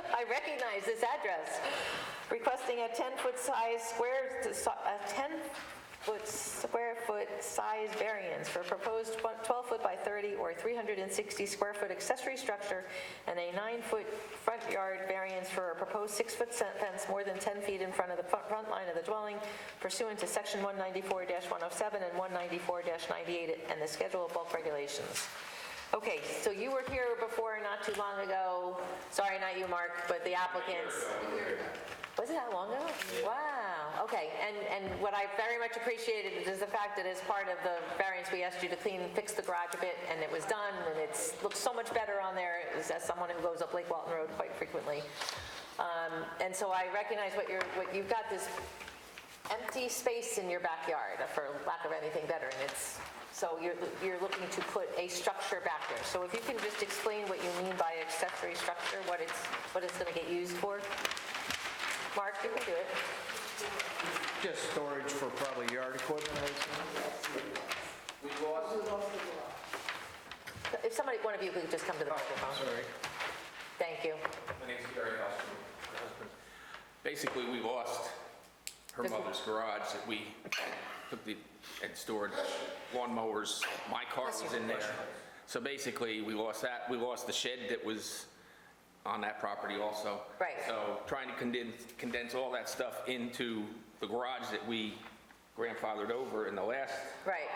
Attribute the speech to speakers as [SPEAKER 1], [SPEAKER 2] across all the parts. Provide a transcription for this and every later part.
[SPEAKER 1] I recognize this address, requesting a 10-foot size square, a 10-foot square foot size variance for a proposed 12-foot by 30 or 360 square foot accessory structure and a 9-foot front yard variance for a proposed 6-foot se- fence more than 10 feet in front of the front front line of the dwelling pursuant to Section 194-107 and 194-98 and the Schedule of Bulk Regulations. Okay, so you were here before, not too long ago, sorry, not you, Mark, but the applicants. Was it that long ago? Wow, okay, and, and what I very much appreciated is the fact that as part of the variance, we asked you to clean, fix the garage a bit, and it was done, and it's, looks so much better on there, as as someone who goes up Lake Walton Road quite frequently. Um, And so I recognize what you're, what, you've got this empty space in your backyard, for lack of anything better, and it's, so you're, you're looking to put a structure back there. So if you can just explain what you mean by accessory structure, what it's, what it's gonna get used for? Mark, you can do it.
[SPEAKER 2] Just storage for probably yard equipment, I
[SPEAKER 1] If somebody, one of you could just come to the microphone.
[SPEAKER 2] sorry.
[SPEAKER 1] Thank you.
[SPEAKER 3] My name's Gary Austin, my husband. Basically, we lost her
[SPEAKER 1] This one.
[SPEAKER 3] mother's garage that we took the, and stored lawnmowers. My car was in there. So basically, we lost that, we lost the shed that was on that property also.
[SPEAKER 1] Right.
[SPEAKER 3] So trying to condense, condense all that stuff into the garage that we grandfathered over in the last,
[SPEAKER 1] Right,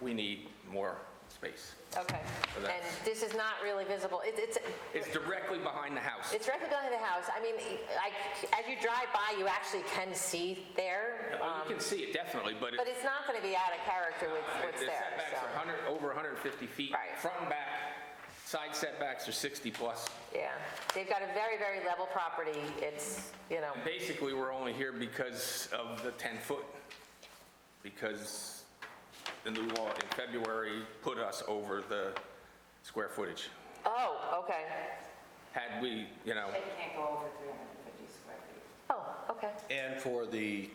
[SPEAKER 3] we need more space.
[SPEAKER 1] okay.
[SPEAKER 3] So
[SPEAKER 1] And
[SPEAKER 3] that's-
[SPEAKER 1] this is not really visible. It- It's,
[SPEAKER 3] It's directly behind the house.
[SPEAKER 1] it's directly behind the house. I mean, I- as you drive by, you actually can see there, Um,
[SPEAKER 3] Oh, You can see it definitely, but it-
[SPEAKER 1] but it's not going to be out of character with what's
[SPEAKER 3] The
[SPEAKER 1] there,
[SPEAKER 3] setbacks are
[SPEAKER 1] so,
[SPEAKER 3] 100, over 150 feet.
[SPEAKER 1] Right.
[SPEAKER 3] Front and back, side setbacks are 60 plus.
[SPEAKER 1] yeah. They've got a very, very level property. It's, you know,
[SPEAKER 3] Basically, we're only here because of the 10-foot, because the new law in February put us over the square footage.
[SPEAKER 1] oh, okay.
[SPEAKER 3] Had we, you know,
[SPEAKER 4] It can't go over 350 square feet.
[SPEAKER 1] Oh, okay,
[SPEAKER 5] And for the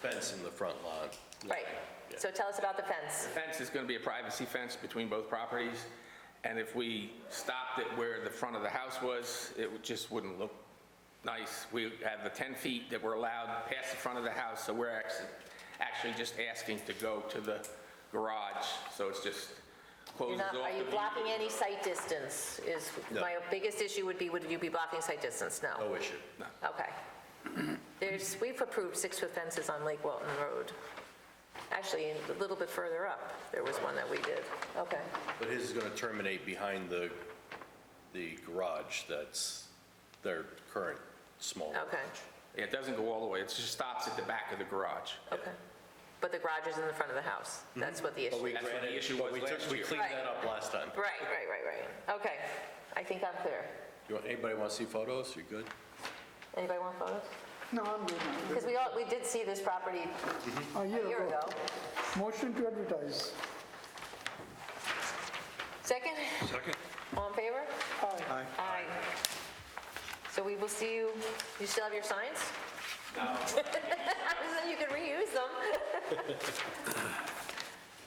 [SPEAKER 5] fence in the front lawn.
[SPEAKER 1] right. So tell us about the fence.
[SPEAKER 3] fence is going to be a privacy fence between both properties, and if we stopped it where the front of the house was, it would- just wouldn't look nice. We have the 10 feet that were allowed past the front of the house, so we're actually, actually just asking to go to the garage, so it's just
[SPEAKER 1] You're
[SPEAKER 3] closes
[SPEAKER 1] not,
[SPEAKER 3] off the
[SPEAKER 1] are you
[SPEAKER 3] view.
[SPEAKER 1] blocking any sight distance? Is,
[SPEAKER 5] No.
[SPEAKER 1] my biggest issue would be, would you be blocking sight distance? No.
[SPEAKER 5] No issue.
[SPEAKER 1] Okay. There's, we've approved six-foot fences on Lake Walton Road. Actually, a little bit further up, there was one that we did. Okay.
[SPEAKER 5] But his is going to terminate behind the, the garage that's their current small garage.
[SPEAKER 1] Okay,
[SPEAKER 3] Yeah, It doesn't go all the way, it just stops at the back of the garage.
[SPEAKER 1] okay. But the garage is in the front of the house.
[SPEAKER 3] Mm-hmm.
[SPEAKER 1] That's what the issue is.
[SPEAKER 3] That's what the issue
[SPEAKER 5] But
[SPEAKER 3] was
[SPEAKER 5] we took-
[SPEAKER 3] last
[SPEAKER 5] We
[SPEAKER 3] year.
[SPEAKER 5] cleaned that up last time.
[SPEAKER 1] Right, right, right, right. Okay. I think I'm clear.
[SPEAKER 5] You want- Anybody want to see photos? You good?
[SPEAKER 1] Anybody want photos? No, I'm good. Because we all, we did see this property
[SPEAKER 6] A
[SPEAKER 1] a year ago.
[SPEAKER 6] Motion to advertise.
[SPEAKER 1] Second? Second. All in favor?
[SPEAKER 6] Aye.
[SPEAKER 1] Aye. So we will see you, you still have your signs? No. Then you can reuse them.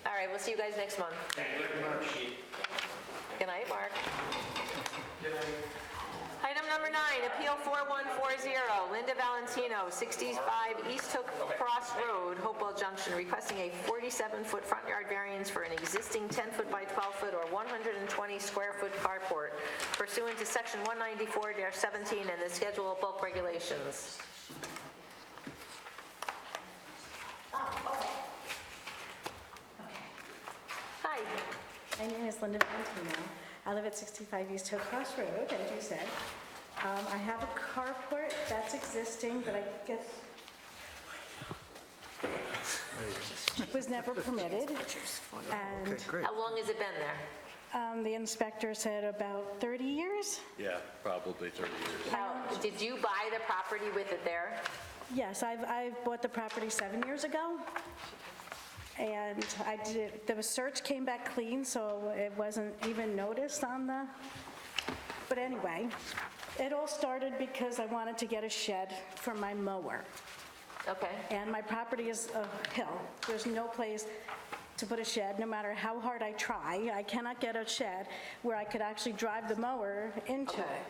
[SPEAKER 1] All right, we'll see you guys next month. Thank you very much. Good night, Mark. Item number nine, Appeal 4140, Linda Valentino, 65 East Hook Cross Road, Hopewell Junction, requesting a 47-foot front yard variance for an existing 10-foot by 12-foot or 120-square-foot carport pursuant to Section 194-17 and the Schedule of Bulk Regulations. Hi,
[SPEAKER 7] My name is Linda Valentino. I live at 65 East Hill Cross Road, as you said. Um, I have a carport that's existing, but I guess was never permitted. And
[SPEAKER 1] how long has it been there?
[SPEAKER 7] um, the inspector said about 30 years.
[SPEAKER 5] Yeah, probably 30 years.
[SPEAKER 1] How, did you buy the property with it there?
[SPEAKER 7] Yes, I've, I bought the property seven years ago. And I did, the search came back clean, so it wasn't even noticed on the, but anyway, it all started because I wanted to get a shed for my mower.
[SPEAKER 1] Okay,
[SPEAKER 7] And my property is a hill. There's no place to put a shed, no matter how hard I try. I cannot get a shed where I could actually drive the mower into it.
[SPEAKER 1] Okay.